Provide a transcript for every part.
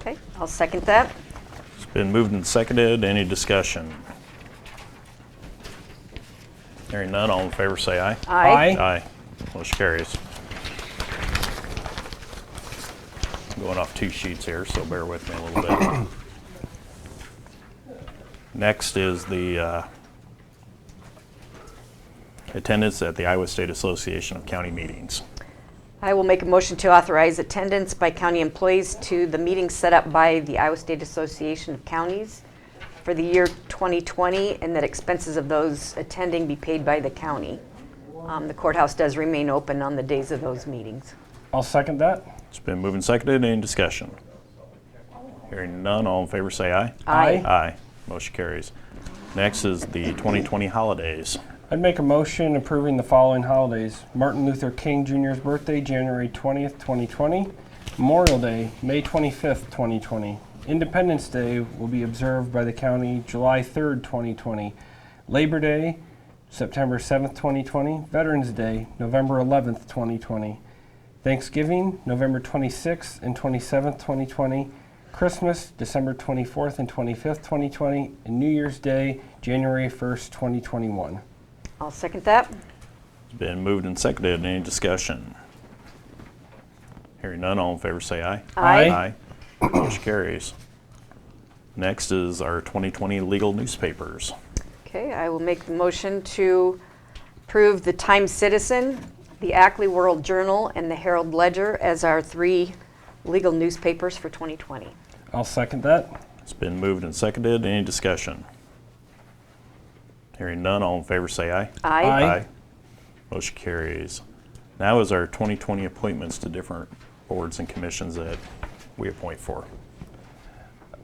Okay, I'll second that. It's been moved and seconded. Any discussion? Hearing none, all in favor say aye. Aye. Aye. Motion carries. I'm Going off two sheets here, so bear with me a little bit. Next is the uh, attendance at the Iowa State Association of County Meetings. I will make a motion to authorize attendance by county employees to the meeting set up by the Iowa State Association of Counties for the year 2020, and that expenses of those attending be paid by the county. Um, The courthouse does remain open on the days of those meetings. I'll second that. It's been moved and seconded. Any discussion? Hearing none, all in favor say aye. Aye. Aye. Motion carries. Next is the 2020 holidays. I'd make a motion approving the following holidays. Martin Luther King Jr.'s birthday, January 20th, 2020. Memorial Day, May 25th, 2020. Independence Day will be observed by the county July 3rd, 2020. Labor Day, September 7th, 2020. Veterans Day, November 11th, 2020. Thanksgiving, November 26th and 27th, 2020. Christmas, December 24th and 25th, 2020. And New Year's Day, January 1st, 2021. I'll second that. It's been moved and seconded. Any discussion? Hearing none, all in favor say aye. Aye. Aye. Motion carries. Next is our 2020 legal newspapers. Okay, I will make the motion to approve the Times Citizen, the Ackley World Journal, and the Herald Ledger as our three legal newspapers for 2020. I'll second that. It's been moved and seconded. Any discussion? Hearing none, all in favor say aye. Aye. Aye. Motion carries. Now is our 2020 appointments to different boards and commissions that we appoint for.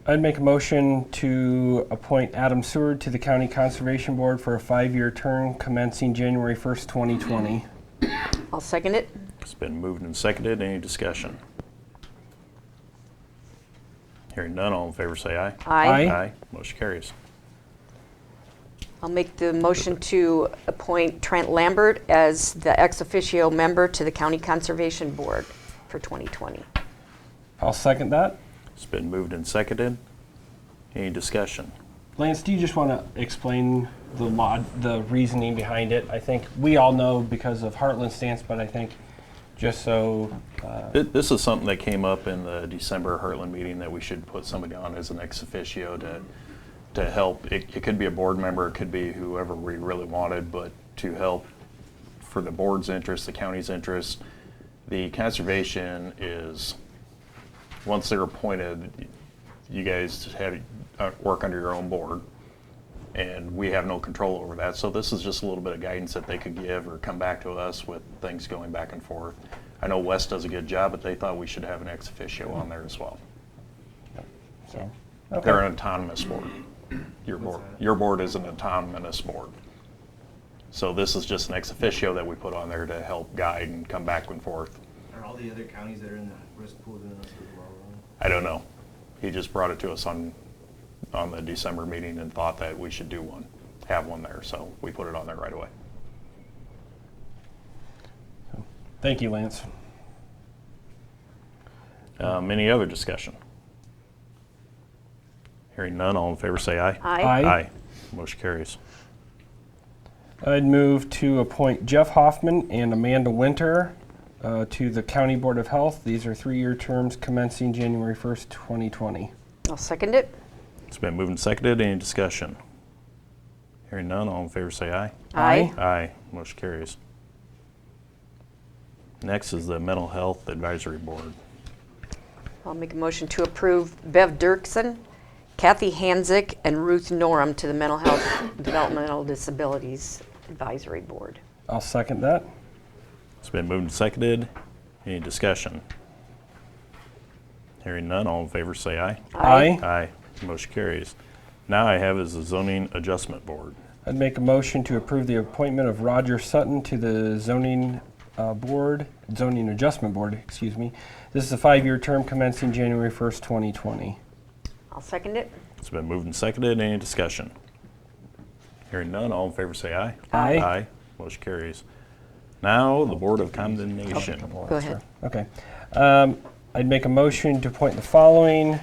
I'd make a motion to appoint Adam Seward to the County Conservation Board for a five-year term commencing January 1st, 2020. I'll second it. It's been moved and seconded. Any discussion? Hearing none, all in favor say aye. Aye. Aye. Motion carries. I'll make the motion to appoint Trent Lambert as the ex officio member to the County Conservation Board for 2020. I'll second that. It's been moved and seconded. Any discussion? Lance, do you just want to explain the law, the reasoning behind it? I think we all know because of Heartland stance, but I think just so, Thi- This is something that came up in the December Heartland meeting that we should put somebody on as an ex officio to, to help. It, it could be a board member, it could be whoever we really wanted, but to help for the board's interest, the county's interest. The conservation is, once they're appointed, you guys have, uh, work under your own board. And we have no control over that, so this is just a little bit of guidance that they could give or come back to us with things going back and forth. I know Wes does a good job, but they thought we should have an ex officio on there as well. so. They're an autonomous board. Your board, your board is an autonomous board. So this is just an ex officio that we put on there to help guide and come back and forth. Are all the other counties that are in the risk pool doing this as well? I don't know. He just brought it to us on, on the December meeting and thought that we should do one, have one there, so we put it on there right away. Thank you, Lance. Um, any other discussion? Hearing none, all in favor say aye. Aye. Aye. Motion carries. I'd move to appoint Jeff Hoffman and Amanda Winter uh, to the County Board of Health. These are three-year terms commencing January 1st, 2020. I'll second it. It's been moved and seconded. Any discussion? Hearing none, all in favor say aye. Aye. Aye. Motion carries. Next is the Mental Health Advisory Board. I'll make a motion to approve Bev Dirksen, Kathy Hansick, and Ruth Norum to the Mental Health Developmental Disabilities Advisory Board. I'll second that. It's been moved and seconded. Any discussion? Hearing none, all in favor say aye. Aye. Aye. Motion carries. Now I have is the Zoning Adjustment Board. I'd make a motion to approve the appointment of Roger Sutton to the zoning uh, board, zoning adjustment board, excuse me. This is a five-year term commencing January 1st, 2020. I'll second it. It's been moved and seconded. Any discussion? Hearing none, all in favor say aye. Aye. Aye. Motion carries. Now, the Board of Condemnation. Go ahead. Okay. Um, I'd make a motion to appoint the following